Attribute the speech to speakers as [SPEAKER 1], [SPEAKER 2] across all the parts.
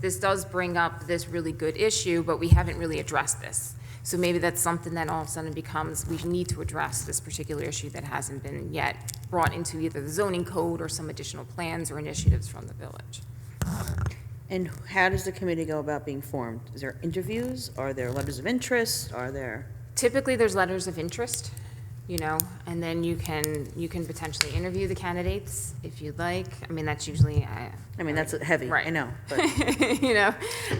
[SPEAKER 1] this does bring up this really good issue, but we haven't really addressed this. So maybe that's something that all of a sudden becomes, we need to address this particular issue that hasn't been yet brought into either the zoning code or some additional plans or initiatives from the village.
[SPEAKER 2] And how does the committee go about being formed? Is there interviews? Are there letters of interest? Are there?
[SPEAKER 1] Typically, there's letters of interest, you know, and then you can, you can potentially interview the candidates if you'd like. I mean, that's usually, I,
[SPEAKER 2] I mean, that's heavy, I
[SPEAKER 1] Right.
[SPEAKER 2] know, but
[SPEAKER 1] you know,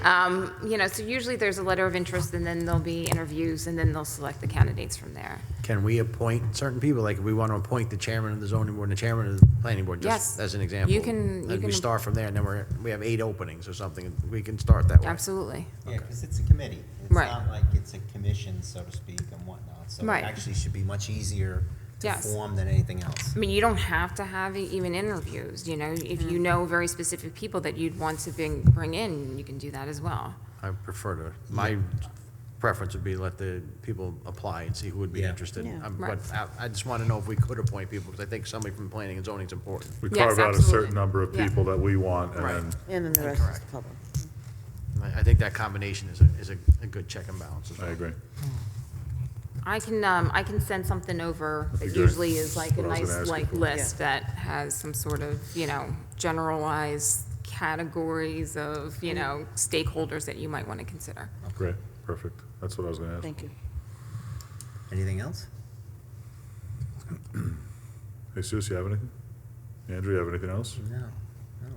[SPEAKER 1] um, you know, so usually there's a letter of interest, and then there'll be interviews, and then they'll select the candidates from there.
[SPEAKER 3] Can we appoint certain people? Like, if we want to appoint the chairman of the zoning board and the chairman of the planning board, just
[SPEAKER 1] Yes.
[SPEAKER 3] as an example?
[SPEAKER 1] You can- you
[SPEAKER 3] And we
[SPEAKER 1] can-
[SPEAKER 3] start from there, and then we're, we have eight openings or something, we can start that way.
[SPEAKER 1] Absolutely.
[SPEAKER 4] Yeah, because it's a committee. It's
[SPEAKER 1] Right.
[SPEAKER 4] not like it's a commission, so to speak, and whatnot. So it
[SPEAKER 1] Right.
[SPEAKER 4] actually should be much easier to
[SPEAKER 1] Yes.
[SPEAKER 4] form than anything else.
[SPEAKER 1] I mean, you don't have to have e- even interviews, you know, if you know very specific people that you'd want to bring, bring in, you can do that as well.
[SPEAKER 3] I prefer to, my preference would be let the people apply and see who would be
[SPEAKER 4] Yeah.
[SPEAKER 3] interested.
[SPEAKER 2] Yeah.
[SPEAKER 3] Um,
[SPEAKER 1] Right.
[SPEAKER 3] But I, I just want to know if we could appoint people, because I think somebody from planning and zoning is important.
[SPEAKER 5] We
[SPEAKER 1] Yes,
[SPEAKER 5] carve out a
[SPEAKER 1] absolutely.
[SPEAKER 5] certain number of
[SPEAKER 1] Yeah.
[SPEAKER 5] people that we want, and
[SPEAKER 3] Right.
[SPEAKER 5] then
[SPEAKER 2] and then the rest is the public.
[SPEAKER 3] And I, I think that combination is a, is a, a good check and balance as
[SPEAKER 5] I
[SPEAKER 3] well.
[SPEAKER 5] agree.
[SPEAKER 1] I can, um, I can send something over that
[SPEAKER 5] That'd be good.
[SPEAKER 1] usually is like a
[SPEAKER 5] What I was gonna ask
[SPEAKER 1] nice
[SPEAKER 5] you
[SPEAKER 1] like
[SPEAKER 5] for.
[SPEAKER 1] list that has some sort of, you know, generalized categories of, you know, stakeholders that you might want to consider.
[SPEAKER 5] Great, perfect. That's what I was gonna ask.
[SPEAKER 2] Thank you.
[SPEAKER 4] Anything else?
[SPEAKER 5] Hey, Sue, you have anything? Andrew, you have anything else?
[SPEAKER 4] No, no,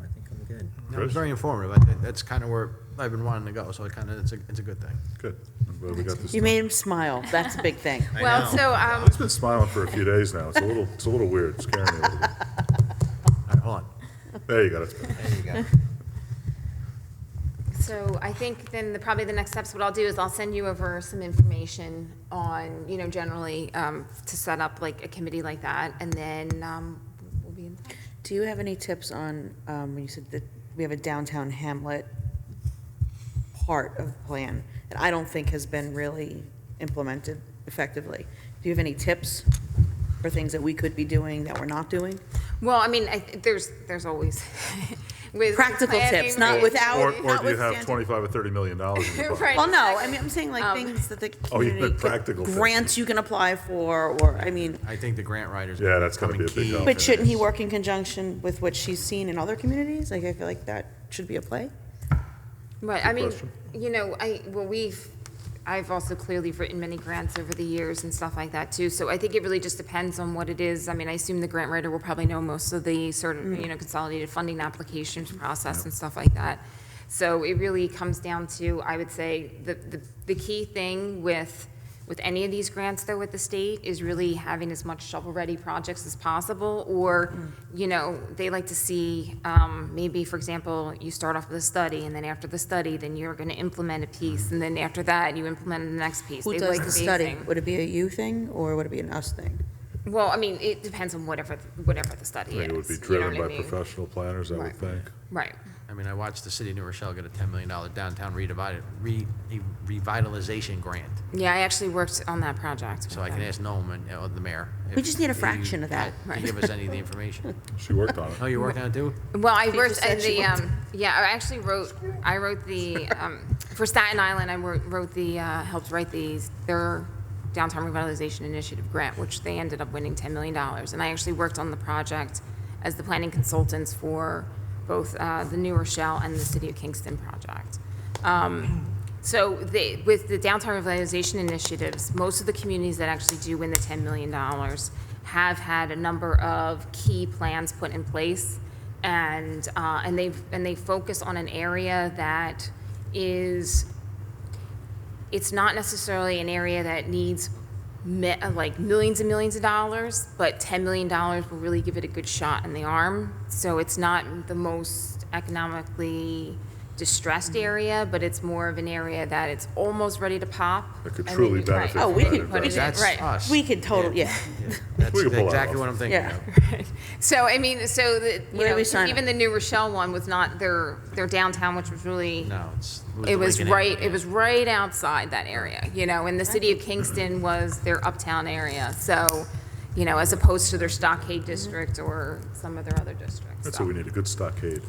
[SPEAKER 4] I think I'm good.
[SPEAKER 3] No, It was
[SPEAKER 5] Chris?
[SPEAKER 3] very informative. I, think that's kind of where I've been wanting to go, so it kind of, it's a, it's a good thing.
[SPEAKER 5] Good. I'm glad we got this.
[SPEAKER 2] You
[SPEAKER 5] done.
[SPEAKER 2] made him smile, that's a big thing.
[SPEAKER 4] I
[SPEAKER 1] Well,
[SPEAKER 4] know.
[SPEAKER 1] so, um,
[SPEAKER 5] He's been smiling for a few days now. It's a little, it's a little weird. It's scaring me a little bit.
[SPEAKER 3] All right, hold on.
[SPEAKER 5] There you go. That's better.
[SPEAKER 4] There you go.
[SPEAKER 1] So I think then the, probably the next steps, what I'll do is I'll send you over some information on, you know, generally, um, to set up like a committee like that, and then, um, we'll be in touch.
[SPEAKER 2] Do you have any tips on, um, when you said that we have a downtown hamlet part of the plan that I don't think has been really implemented effectively? Do you have any tips for things that we could be doing that we're not doing?
[SPEAKER 1] Well, I mean, I, there's, there's always with.
[SPEAKER 2] Practical tips,
[SPEAKER 1] planning,
[SPEAKER 2] not without.
[SPEAKER 5] Or, or do you have
[SPEAKER 2] notwithstanding-
[SPEAKER 5] twenty-five or thirty million dollars in your pocket?
[SPEAKER 1] Right.
[SPEAKER 2] Well, no, I mean, I'm saying like
[SPEAKER 1] Um,
[SPEAKER 2] things that the
[SPEAKER 5] Oh, you meant
[SPEAKER 2] community. could-
[SPEAKER 5] practical things.
[SPEAKER 2] Grants you can apply for, or, I mean,
[SPEAKER 3] I think the grant writers.
[SPEAKER 5] Yeah, that's gonna
[SPEAKER 3] becoming
[SPEAKER 5] be a big
[SPEAKER 3] key
[SPEAKER 5] help.
[SPEAKER 3] for
[SPEAKER 2] but shouldn't he
[SPEAKER 3] this.
[SPEAKER 2] work in conjunction with what she's seen in other communities? Like, I feel like that should be a play.
[SPEAKER 1] Right, I mean,
[SPEAKER 5] question.
[SPEAKER 1] you know, I, well, we've, I've also clearly written many grants over the years and stuff like that too, so I think it really just depends on what it is. I mean, I assume the grant writer will probably know most of the sort of, you know, consolidated funding applications process and stuff like that. So it really comes down to, I would say, the, the, the key thing with, with any of these grants though with the state is really having as much shovel-ready projects as possible, or, you know, they like to see, um, maybe, for example, you start off with a study, and then after the study, then you're gonna implement a piece, and then after that, you implement the next piece.
[SPEAKER 2] Who
[SPEAKER 1] They
[SPEAKER 2] does
[SPEAKER 1] like
[SPEAKER 2] the
[SPEAKER 1] phasing.
[SPEAKER 2] study? Would it be a you thing, or would it be an us thing?
[SPEAKER 1] Well, I mean, it depends on whatever, whatever the
[SPEAKER 5] I
[SPEAKER 1] study is.
[SPEAKER 5] think it would be
[SPEAKER 1] you know what
[SPEAKER 5] driven
[SPEAKER 1] I
[SPEAKER 5] by
[SPEAKER 1] mean?
[SPEAKER 5] professional planners, I would
[SPEAKER 1] Right.
[SPEAKER 5] think.
[SPEAKER 1] Right,
[SPEAKER 3] I mean, I watched the city of New Rochelle get a $10 million downtown redivid- re- revitalization grant.
[SPEAKER 1] yeah, I actually worked on that project. with
[SPEAKER 3] So I can
[SPEAKER 1] them.
[SPEAKER 3] ask Noam and, uh, the mayor.
[SPEAKER 2] We
[SPEAKER 3] if
[SPEAKER 2] just need a
[SPEAKER 3] he-
[SPEAKER 2] fraction of that.
[SPEAKER 3] uh, He give us any of the information.
[SPEAKER 5] She worked on
[SPEAKER 3] Oh,
[SPEAKER 5] it.
[SPEAKER 3] you're working on it too?
[SPEAKER 1] Well, I
[SPEAKER 2] She
[SPEAKER 1] worked
[SPEAKER 2] just said
[SPEAKER 1] at
[SPEAKER 2] she
[SPEAKER 1] the,
[SPEAKER 2] worked-
[SPEAKER 1] um, yeah, I actually wrote, I wrote the, um, for Staten Island, I wrote, wrote the, uh, helped write these, their downtown revitalization initiative grant, which they ended up winning ten million dollars. And I actually worked on the project as the planning consultants for both, uh, the New Rochelle and the City of Kingston project. Um, so they, with the downtown revitalization initiatives, most of the communities that actually do win the ten million dollars have had a number of key plans put in place. And, uh, and they've, and they focus on an area that is it's not necessarily an area that needs me- uh, like millions and millions of dollars, but $10 million will really give it a good shot in the arm. So it's not the most economically distressed
[SPEAKER 2] Mm-hmm.
[SPEAKER 1] area, but it's more of an area that it's almost ready to pop.
[SPEAKER 5] It could
[SPEAKER 1] and then
[SPEAKER 5] truly
[SPEAKER 1] you- right.
[SPEAKER 5] benefit
[SPEAKER 2] Oh,
[SPEAKER 5] from
[SPEAKER 2] we
[SPEAKER 5] that
[SPEAKER 2] could put it
[SPEAKER 5] investment.
[SPEAKER 2] in,
[SPEAKER 3] That's uh,
[SPEAKER 2] right.
[SPEAKER 3] us.
[SPEAKER 2] We could total, yeah.
[SPEAKER 3] That's
[SPEAKER 5] We could pull that
[SPEAKER 3] exactly
[SPEAKER 5] off.
[SPEAKER 3] what I'm thinking
[SPEAKER 2] Yeah.
[SPEAKER 3] of.
[SPEAKER 1] So, I mean, so the, you
[SPEAKER 2] Where do we
[SPEAKER 1] know,
[SPEAKER 2] sign
[SPEAKER 1] even the New Rochelle one was not their, their downtown, which was really.
[SPEAKER 3] No, it's.
[SPEAKER 1] It
[SPEAKER 3] the
[SPEAKER 1] was
[SPEAKER 3] Lincoln area.
[SPEAKER 1] right, it was right outside that area, you know, and the city of Kingston was their uptown area, so, you know, as opposed to their Stockade district or some of their other districts.
[SPEAKER 5] That's what we need, a good stockade.